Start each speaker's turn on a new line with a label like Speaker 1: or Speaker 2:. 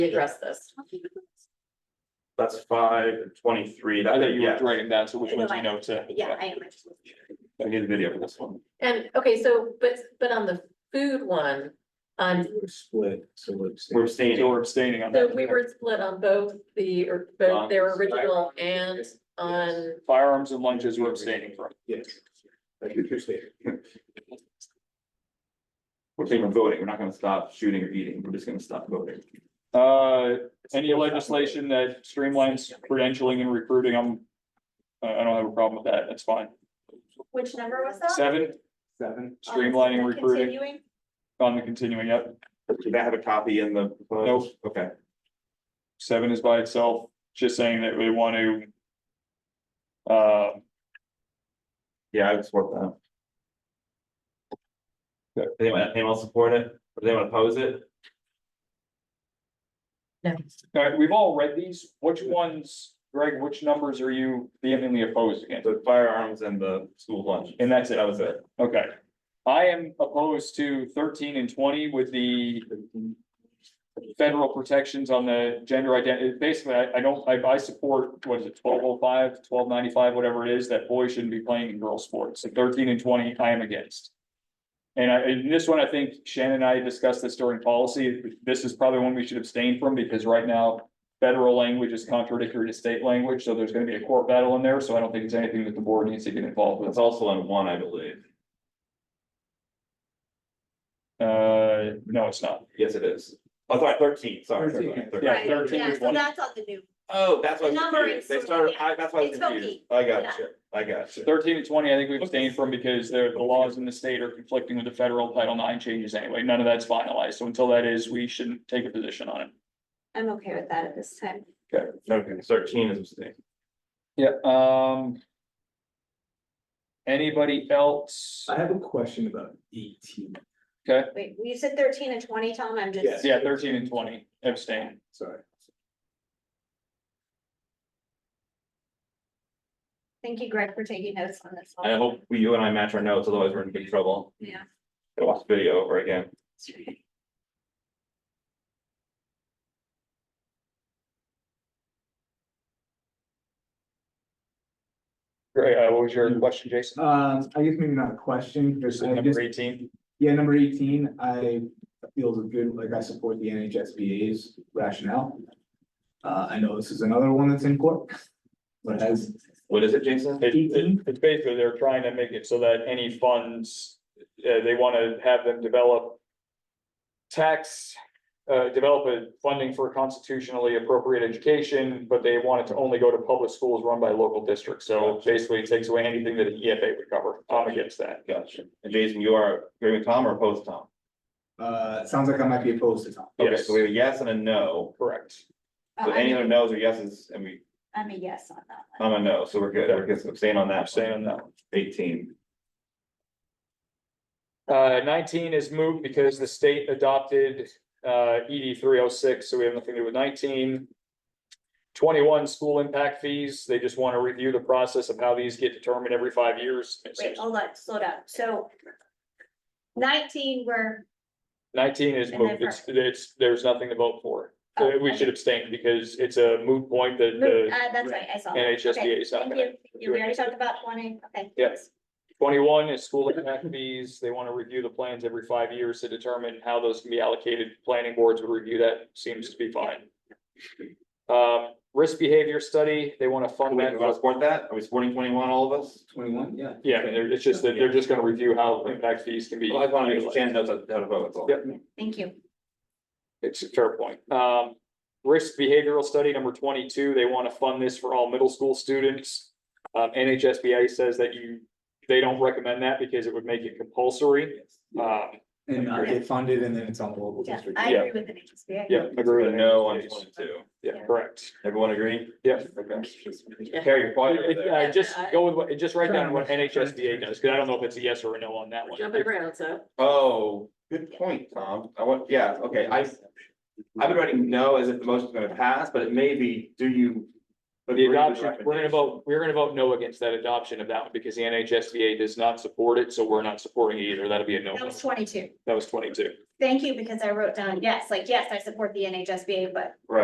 Speaker 1: address this.
Speaker 2: That's five and twenty-three.
Speaker 3: I
Speaker 2: That's
Speaker 3: thought
Speaker 2: a
Speaker 3: you were
Speaker 2: yes.
Speaker 3: writing down, so which
Speaker 1: No,
Speaker 3: ones you
Speaker 1: I-
Speaker 3: know to.
Speaker 1: Yeah, I am. I just wasn't sure.
Speaker 3: I need a video for this one.
Speaker 1: And, okay, so, but, but on the food one, on,
Speaker 4: We're split, so it's.
Speaker 2: We're
Speaker 3: So
Speaker 2: abstaining.
Speaker 3: we're abstaining on
Speaker 1: so
Speaker 3: that.
Speaker 1: we were split on both the, or both their original and on,
Speaker 3: Firearms and lunches we're abstaining from.
Speaker 4: Yes. Like you're saying.
Speaker 2: We're saying we're voting. We're not gonna stop shooting or eating. We're just gonna stop voting.
Speaker 3: Uh, any legislation that streamlines credentialing and recruiting, I'm. I I don't have a problem with that, that's fine.
Speaker 5: Which number
Speaker 1: Uh,
Speaker 5: was that?
Speaker 1: um,
Speaker 5: Um,
Speaker 3: Seven,
Speaker 4: Seven.
Speaker 3: streamlining recruiting
Speaker 5: Continuing,
Speaker 3: on the continuing, yep.
Speaker 2: Did I have a copy in the?
Speaker 3: Nope.
Speaker 2: Okay.
Speaker 3: Seven is by itself, just saying that we want to. Uh,
Speaker 2: Yeah, I would support that. Does Anyone, anyone else support it? Does anyone oppose it?
Speaker 1: no,
Speaker 3: all right, we've all read these, which ones, Greg, which numbers are you vehemently opposed against?
Speaker 2: The firearms and the school lunch.
Speaker 3: And that's it.
Speaker 2: That was it.
Speaker 3: Okay. I am opposed to thirteen and twenty with the. Federal protections on the gender identity. Basically, I, I don't, I, I support, what is it, 1205, 1295, whatever it is, that boys shouldn't be playing in girls' sports. And thirteen and twenty, I am against. And I, and this one, I think Shannon and I discussed this during policy. This is probably one we should abstain from because right now. Federal language is contradictory to state language, so there's gonna be a court battle in there, so I don't think it's anything that the board needs to get involved with.
Speaker 2: That's also on one, I believe.
Speaker 3: Uh, no, it's not.
Speaker 2: Yes, it is. Oh, sorry, thirteen, sorry. sorry,
Speaker 4: Thirteen.
Speaker 2: sorry.
Speaker 3: Yeah,
Speaker 5: right,
Speaker 3: 13
Speaker 5: yeah,
Speaker 3: is
Speaker 5: so
Speaker 3: one.
Speaker 5: that's on the new,
Speaker 2: Oh, that's why I was
Speaker 5: The number
Speaker 2: confused. They
Speaker 5: is-
Speaker 2: started,
Speaker 5: yeah.
Speaker 2: I, that's why I was
Speaker 5: It's okay.
Speaker 2: confused. I got
Speaker 5: Yeah.
Speaker 2: you. I got you.
Speaker 3: Thirteen and twenty, I think we've abstained from because they're, the laws in the state are conflicting with the federal Title IX changes anyway. None of that's finalized. So until that is, we shouldn't take a position on it.
Speaker 5: I'm okay with that at this time.
Speaker 2: Okay, thirteen is abstaining.
Speaker 3: Yeah, um. Anybody else?
Speaker 4: I have a question about eighteen.
Speaker 5: Wait, you said thirteen and twenty, Tom, I'm
Speaker 4: Yes.
Speaker 5: just,
Speaker 3: Yeah, thirteen and twenty abstain.
Speaker 4: Sorry.
Speaker 5: thank you Greg for taking notes on this. one.
Speaker 2: I hope we- you and I match our notes, otherwise we're in big trouble.
Speaker 5: Yeah.
Speaker 2: Gotta Watch the video over again.
Speaker 3: Great. Uh, what was your question, Jason?
Speaker 6: Um, I guess maybe not a question,
Speaker 3: Is
Speaker 6: because
Speaker 3: it
Speaker 6: I
Speaker 3: number
Speaker 6: just,
Speaker 3: eighteen?
Speaker 6: yeah, number eighteen, I feel is good, like I support the NHSBA's rationale. Uh, I know this is another one that's in court, but as,
Speaker 2: What is it, Jason?
Speaker 3: It- it-
Speaker 6: 18?
Speaker 3: it's basically they're trying to make it so that any funds, uh, they want to have them develop. Tax, uh, develop a funding for constitutionally appropriate education, but they want it to only go to public schools run by local districts. So basically it takes away anything that the EFA would cover. I'm against that.
Speaker 2: Gotcha. And Jason, you are agreeing with Tom or opposed to Tom?
Speaker 6: uh, it sounds like I might be opposed to Tom.
Speaker 2: Okay,
Speaker 3: Yes.
Speaker 2: so we have a yes and a no.
Speaker 3: Correct.
Speaker 5: Oh,
Speaker 2: So any
Speaker 5: I'm
Speaker 2: other
Speaker 5: a-
Speaker 2: no's or yeses, and we,
Speaker 5: I'm a yes on that one.
Speaker 2: I'm a no, so we're good. We're just abstaining on that.
Speaker 3: Abstain on that
Speaker 2: Eighteen.
Speaker 3: Uh, nineteen is moved because the state adopted, uh, ED three oh six, so we have nothing to do with nineteen. Twenty-one, school impact fees, they just want to review the process of how these get determined every five years.
Speaker 5: Wait, hold on, slow down, so. Nineteen, we're,
Speaker 3: Nineteen is
Speaker 5: And then
Speaker 3: moved, it's, it's, there's nothing to vote for.
Speaker 5: Oh,
Speaker 3: Uh, We
Speaker 5: okay.
Speaker 3: should abstain because it's a moot point that
Speaker 5: uh,
Speaker 3: the
Speaker 5: that's right, I saw. that. Okay,
Speaker 3: NHSBA is not
Speaker 5: Thank
Speaker 3: gonna.
Speaker 5: you, you we already talked about twenty, okay.
Speaker 3: Yep. Twenty-one is school impact fees. They want to review the plans every five years to determine how those can be allocated. Planning boards would review that, seems to be fine. Um, risk behavior study, they want to
Speaker 2: Are
Speaker 3: fund
Speaker 2: we
Speaker 3: that.
Speaker 2: gonna support that? Are we supporting twenty-one, all of us?
Speaker 6: Twenty-one, yeah.
Speaker 3: Yeah, I mean, they're- it's just that they're just gonna review how impact fees can be.
Speaker 2: Well, I just wanna make
Speaker 3: utilized.
Speaker 2: sure Shannon knows how to vote, that's all.
Speaker 3: Yep.
Speaker 5: Thank you.
Speaker 3: It's a fair point. Um, risk behavioral study number twenty-two, they want to fund this for all middle school students. Um, NHSBA says that you, they don't recommend that because it would make it compulsory. Um,
Speaker 6: And uh, they funded and then it's on the local
Speaker 5: Yeah,
Speaker 6: district.
Speaker 5: I
Speaker 3: Yeah.
Speaker 5: agree with the HSBA.
Speaker 3: yeah, agree with
Speaker 2: We're
Speaker 3: that.
Speaker 2: no on twenty-two.
Speaker 3: Yeah, correct.
Speaker 2: Everyone agree?
Speaker 3: Yeah.
Speaker 2: Okay.
Speaker 1: Yeah.
Speaker 2: Carrie, you're quiet over there.
Speaker 3: Uh, just go with what, just write down what NHSBA does, because I don't know if it's a yes or a no on that
Speaker 1: we're
Speaker 3: one.
Speaker 1: jumping around, so.
Speaker 2: Oh, good point, Tom. I want, yeah, okay, I, I've been writing no as if the motion's gonna pass, but it may be, do you?
Speaker 3: But
Speaker 2: agree
Speaker 3: the
Speaker 2: with
Speaker 3: adoption, we're gonna
Speaker 2: recommendation?
Speaker 3: vote, we're gonna vote no against that adoption of that one, because the NHSBA does not support it, so we're not supporting it either. That'll be a no.
Speaker 5: That was twenty-two.
Speaker 3: That was twenty-two.
Speaker 5: thank you, because I wrote down, yes, like, yes, I support the NHSBA, but